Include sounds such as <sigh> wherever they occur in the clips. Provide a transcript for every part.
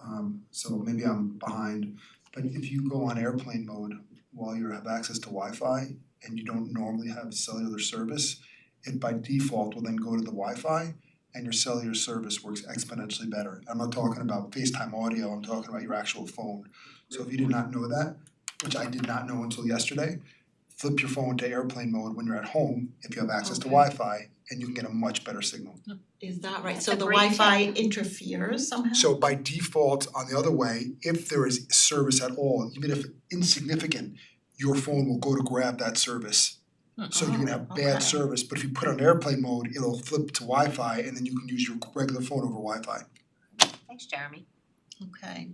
Um so maybe I'm behind, but if you go on airplane mode while you have access to Wi-Fi and you don't normally have cellular service, it by default will then go to the Wi-Fi and your cellular service works exponentially better. I'm not talking about FaceTime audio, I'm talking about your actual phone. So if you did not know that, which I did not know until yesterday, flip your phone to airplane mode when you're at home if you have access to Okay. Wi-Fi and you can get a much better signal. Is that right? That's So a the great Wi-Fi interferes somehow? So by default, on the other way, if there is service at all, even if insignificant, your phone will go to grab that service. So you can have Oh, okay. bad service, but if you put on airplane mode, it'll flip to Wi-Fi, and then you can use your regular phone over Wi-Fi. Thanks, Jeremy. Okay.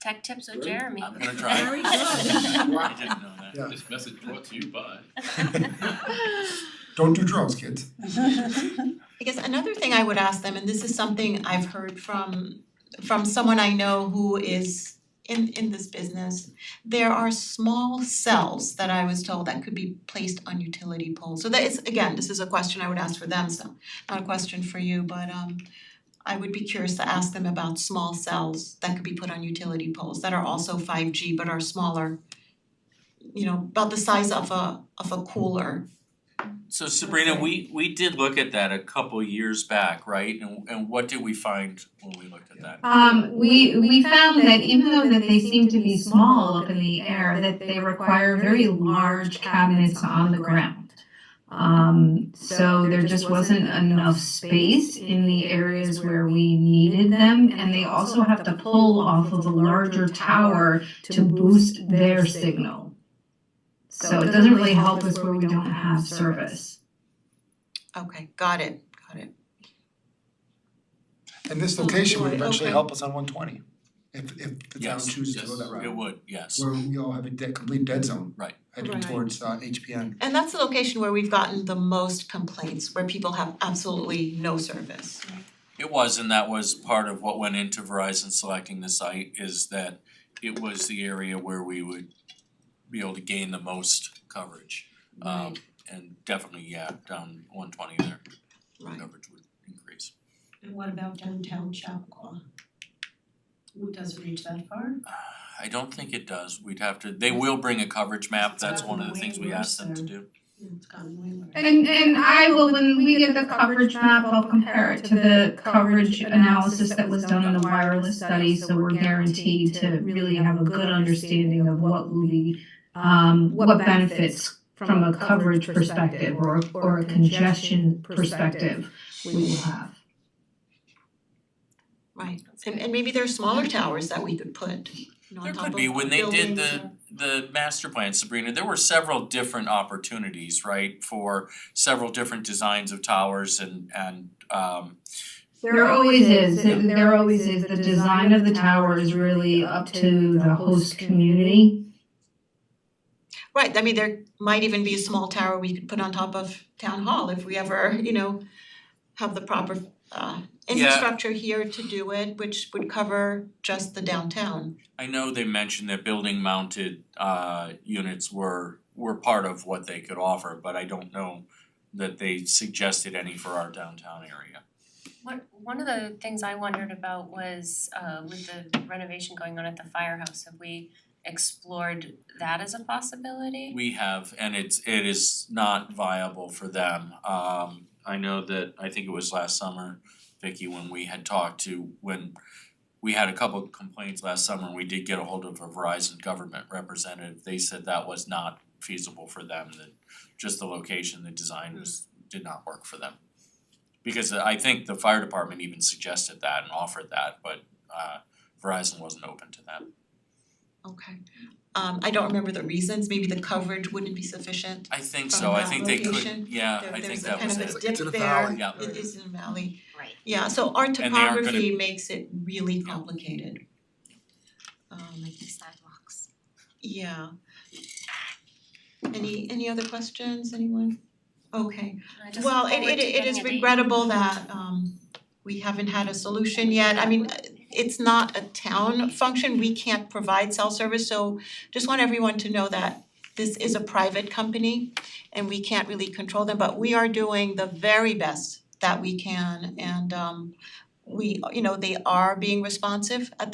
Tech tips with Great. Jeremy. I'm gonna try. Very <laughs> I good. didn't know Yeah. that. This message brought to you by. Don't do drugs, kids. I guess another thing I would ask them, and this is something I've heard from from someone I know who is in in this business, there are small cells that I was told that could be placed on utility poles. So that is, again, this is a question I would ask for them, so not a question for you, but um I would be curious to ask them about small cells that could be put on utility poles that are also five G but are smaller, you know, about the size of a of a cooler. So Sabrina, Okay. we we did look at that a couple years back, right? And and what did we find when we looked at that? Um, we, we found that even though that they seem to be small up in the air, that they require very large cabinets on the ground. Um, so there just wasn't enough space in the areas where we needed them, and they also have to pull off of a larger tower to boost their signal. So it doesn't really help us where we don't have service. Okay, got it, got it. And this Oh, location would boy, eventually okay. help us on one twenty, if if the town Yes, chooses to go that yes, route. It would, yes. Where we all have a dead, complete dead zone. Right. Heading Right. towards uh HPN. And that's the location where we've gotten the most complaints, where people have absolutely no service. It was, and that was part of what went into Verizon selecting the site is that it was the area where we would be able to gain the most coverage. Um and definitely, yeah, down one twenty there, Right, coverage would increase. And what about downtown Chappaqua? Who doesn't reach that far? Uh, I don't think it does. We'd have to, they will bring a coverage map. It's That's gotten one of the way things we worse asked them to there. do. It's gotten way worse. And and I will, when we get the coverage map, I'll compare it to the coverage analysis that was done in the wireless study, so we're guaranteed to really have a good understanding of what will be um what benefits from a coverage perspective or or a congestion perspective we will have. right. And and maybe there are smaller towers that we could put, you know, on There top could of be, when they did buildings the the master plan, Sabrina, there were several different opportunities, right? For several different designs of towers and and um There always is, there always is, the design of the tower is really up to the host community. or- Right, I mean, there might even be a small tower we could put on top of town hall if we ever, you know, have the proper uh infrastructure here to do it, which would cover just the downtown. I know they mentioned that building mounted uh units were were part of what they could offer, but I don't know that they suggested any for our downtown area. <laughs> One one of the things I wondered about was uh with the renovation going on at the firehouse, have we explored that as a possibility? We have, and it's it is not viable for them. Um I know that, I think it was last summer, Vicky, when we had talked to, when we had a couple of complaints last summer, and we did get a hold of a Verizon government representative, they said that was not feasible for them, that just the location, the design was did not work for them. Because I think the fire department even suggested that and offered that, but uh Verizon wasn't open to that. Okay. Um I don't remember the reasons, maybe the coverage wouldn't be sufficient. I think From so, I that think they location, could, yeah, There- I think there's a that was it. kind of a It's like- it's in dip a there, valley. Yeah. it is in a valley. Right. Yeah, so our they aren't gonna- topography makes it really complicated. Um Sidewalks. yeah. Any any other questions, anyone? Okay, I just well, look it forward it to it getting is a date. regrettable that um we haven't had a solution yet. I mean, it's not a town function, we can't provide cell service, so just want everyone to know that this is a private company and we can't really control them, but we are doing the very best that we can and um we, you know, they are being responsive at